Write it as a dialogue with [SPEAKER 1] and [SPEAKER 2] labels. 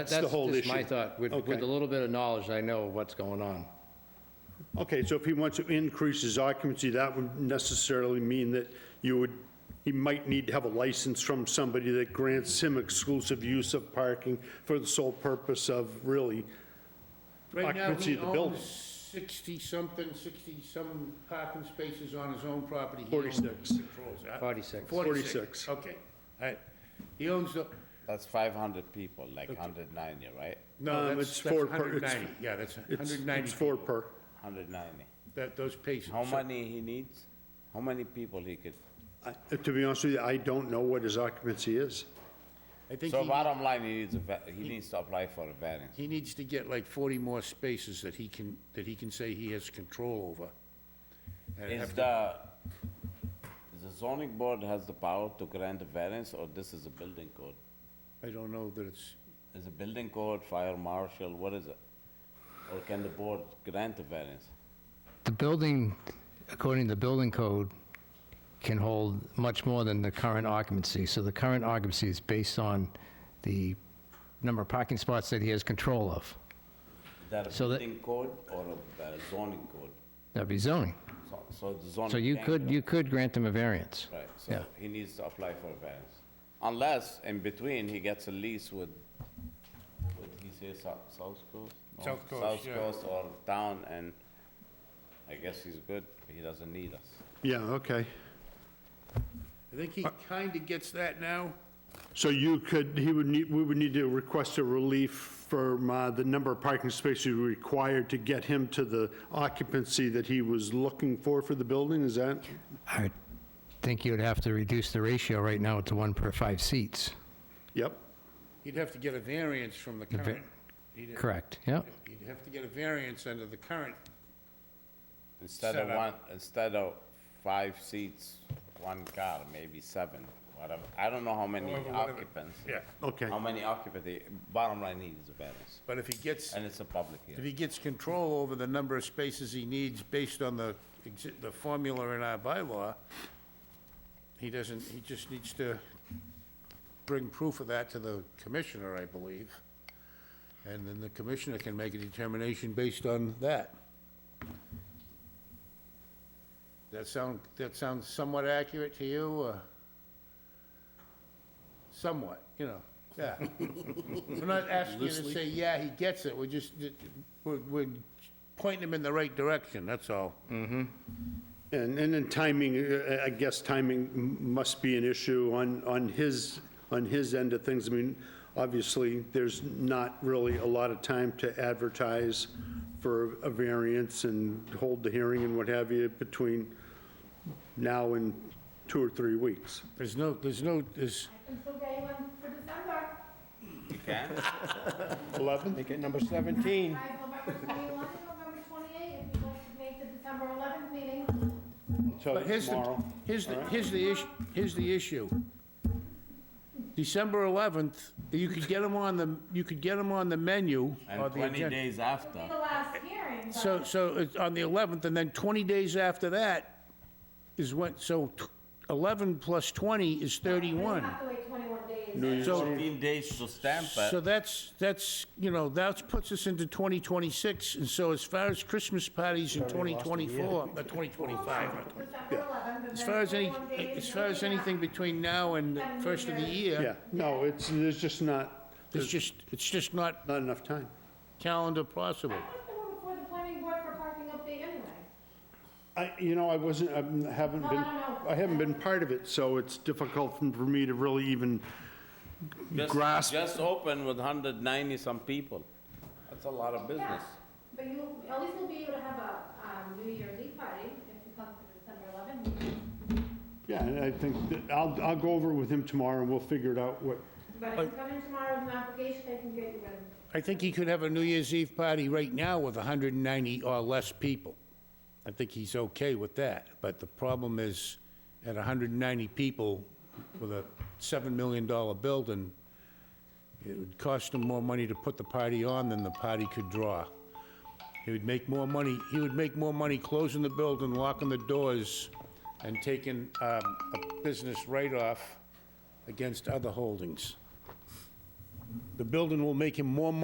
[SPEAKER 1] That's
[SPEAKER 2] the whole
[SPEAKER 1] just my
[SPEAKER 2] issue.
[SPEAKER 1] thought, with,
[SPEAKER 2] Okay.
[SPEAKER 1] with a little bit of knowledge, I know what's going on.
[SPEAKER 2] Okay, so if he wants to increase his occupancy, that would necessarily mean that you would, he might need to have a license from somebody that grants him exclusive use of parking for the sole purpose of really
[SPEAKER 3] Right now,
[SPEAKER 2] Occupancy
[SPEAKER 3] he
[SPEAKER 2] of the building.
[SPEAKER 3] owns sixty-something, sixty-some parking spaces on his own property. He owns-
[SPEAKER 2] 46.
[SPEAKER 3] controls that.
[SPEAKER 1] 46.
[SPEAKER 2] 46.
[SPEAKER 3] Okay, all right. He owns the,
[SPEAKER 4] That's 500 people, like 190, right?
[SPEAKER 2] Um,
[SPEAKER 3] no,
[SPEAKER 2] it's
[SPEAKER 3] that's, that's
[SPEAKER 2] four per-
[SPEAKER 3] hundred
[SPEAKER 2] it's-
[SPEAKER 3] ninety, yeah, that's
[SPEAKER 2] It's
[SPEAKER 3] hundred ninety,
[SPEAKER 2] it's four per,
[SPEAKER 4] 190.
[SPEAKER 3] that, those patients.
[SPEAKER 4] How
[SPEAKER 3] So-
[SPEAKER 4] many he needs? How many people he could?
[SPEAKER 2] I- to be honest with you, I don't know what his occupancy is.
[SPEAKER 3] I think
[SPEAKER 4] So
[SPEAKER 3] he,
[SPEAKER 4] bottom line, he needs a, va- he needs to apply for a variance.
[SPEAKER 3] he needs to get like forty more spaces that he can, that he can say he has control over. And
[SPEAKER 4] Is
[SPEAKER 3] have-
[SPEAKER 4] the, the zoning board has the power to grant a variance, or this is a building code?
[SPEAKER 3] I don't know that it's,
[SPEAKER 4] Is it building code, fire marshal, what is it? Or can the board grant a variance?
[SPEAKER 5] The building, according to the building code, can hold much more than the current occupancy. So the current occupancy is based on the number of parking spots that he has control of.
[SPEAKER 4] Is that a
[SPEAKER 5] So that-
[SPEAKER 4] building code or a uh, zoning code?
[SPEAKER 5] That'd be zoning.
[SPEAKER 4] So- So the zoning.
[SPEAKER 5] So you
[SPEAKER 4] can't
[SPEAKER 5] could,
[SPEAKER 4] grant-
[SPEAKER 5] you could grant him a variance.
[SPEAKER 4] Right,
[SPEAKER 5] Yeah.
[SPEAKER 4] so he needs to apply for a variance. Unless, in between, he gets a lease with, with, he says South Coast? No,
[SPEAKER 3] South Coast, yeah.
[SPEAKER 4] South Coast or town, and I guess he's good, he doesn't need us.
[SPEAKER 2] Yeah, okay.
[SPEAKER 3] I think
[SPEAKER 2] Uh,
[SPEAKER 3] he kinda gets that now.
[SPEAKER 2] So you could, he would need, we would need to request a relief from uh, the number of parking spaces required to get him to the occupancy that he was looking for for the building, is that?
[SPEAKER 5] I think you'd have to reduce the ratio right now to one per five seats.
[SPEAKER 2] Yep.
[SPEAKER 3] He'd have to get a variance from the
[SPEAKER 5] va-
[SPEAKER 3] current. he'd-
[SPEAKER 5] Correct, yeah.
[SPEAKER 3] You'd have to get a variance under the current,
[SPEAKER 4] Instead of
[SPEAKER 3] Set up.
[SPEAKER 4] one, instead of five seats, one car, maybe seven, whatever, I don't know how many
[SPEAKER 3] Whatever, whatever.
[SPEAKER 4] occupants.
[SPEAKER 3] yeah,
[SPEAKER 2] Okay.
[SPEAKER 4] How many occupancy, bottom line, he needs a variance,
[SPEAKER 3] but if he gets,
[SPEAKER 4] and it's a public
[SPEAKER 3] if
[SPEAKER 4] hearing.
[SPEAKER 3] he gets control over the number of spaces he needs based on the, exi- the formula in our bylaw, he doesn't, he just needs to bring proof of that to the commissioner, I believe. And then the commissioner can make a determination based on that. That sound, that sounds somewhat accurate to you, or? Somewhat, you know, yeah. We're not asking you to say, yeah, he gets it, we're just, we're, we're pointing him in the right direction, that's all.
[SPEAKER 2] And, and then timing, uh, I guess timing m- must be an issue on, on his, on his end of things. I mean, obviously, there's not really a lot of time to advertise for a variance and hold the hearing and what have you between now and two or three weeks.
[SPEAKER 3] There's no, there's no, there's,
[SPEAKER 6] I'm still getting one for December.
[SPEAKER 4] You can?
[SPEAKER 2] 11?
[SPEAKER 7] Make it number 17.
[SPEAKER 6] I have November 21 and November 28, if you'd like to make the December 11th meeting.
[SPEAKER 3] but here's the, here's the, here's the issue, here's the issue. December 11th, you could get him on the, you could get him on the menu. or
[SPEAKER 4] And
[SPEAKER 3] the
[SPEAKER 4] 20
[SPEAKER 3] agenda.
[SPEAKER 4] days
[SPEAKER 6] It'll
[SPEAKER 4] after.
[SPEAKER 6] be the last hearing, but
[SPEAKER 3] So, so it's on the 11th, and then 20 days after that is when, so t- 11 plus 20 is
[SPEAKER 6] we
[SPEAKER 3] 31.
[SPEAKER 6] have to wait 21 days.
[SPEAKER 3] So,
[SPEAKER 4] 14 days to stamp
[SPEAKER 3] so
[SPEAKER 4] it.
[SPEAKER 3] that's, that's, you know, that puts us into 2026, and so as far as Christmas parties in 2024, uh, 2025, not 20
[SPEAKER 6] December 11th, and
[SPEAKER 3] as
[SPEAKER 6] then
[SPEAKER 3] far as any,
[SPEAKER 6] 21 days
[SPEAKER 3] as far as
[SPEAKER 6] until
[SPEAKER 3] anything between now and the first of the
[SPEAKER 2] Yeah,
[SPEAKER 3] year,
[SPEAKER 2] no, it's, there's just not,
[SPEAKER 3] it's just, it's just not
[SPEAKER 2] not enough time.
[SPEAKER 3] calendar
[SPEAKER 6] I
[SPEAKER 3] possible.
[SPEAKER 6] put the one before the planning board for parking update anyway.
[SPEAKER 2] I, you know, I wasn't, I haven't
[SPEAKER 6] No,
[SPEAKER 2] been,
[SPEAKER 6] I don't know.
[SPEAKER 2] I haven't been part of it, so it's difficult for me to really even
[SPEAKER 4] Just-
[SPEAKER 2] grasp.
[SPEAKER 4] Just open with 190 some people. That's a lot of
[SPEAKER 6] Yeah,
[SPEAKER 4] business.
[SPEAKER 6] But you, at least we'll be able to have a um, New Year's Eve party if you come for the December 11th meeting.
[SPEAKER 2] Yeah, and I think, that- I'll, I'll go over it with him tomorrow and we'll figure it out what,
[SPEAKER 6] But if you come in tomorrow with an application, I can get you in.
[SPEAKER 3] I think he could have a New Year's Eve party right now with 190 or less people. I think he's okay with that, but the problem is, at 190 people with a $7 million building, it would cost him more money to put the party on than the party could draw. He would make more money, he would make more money closing the building, locking the doors, and taking um, a business write-off against other holdings. The building will make him more money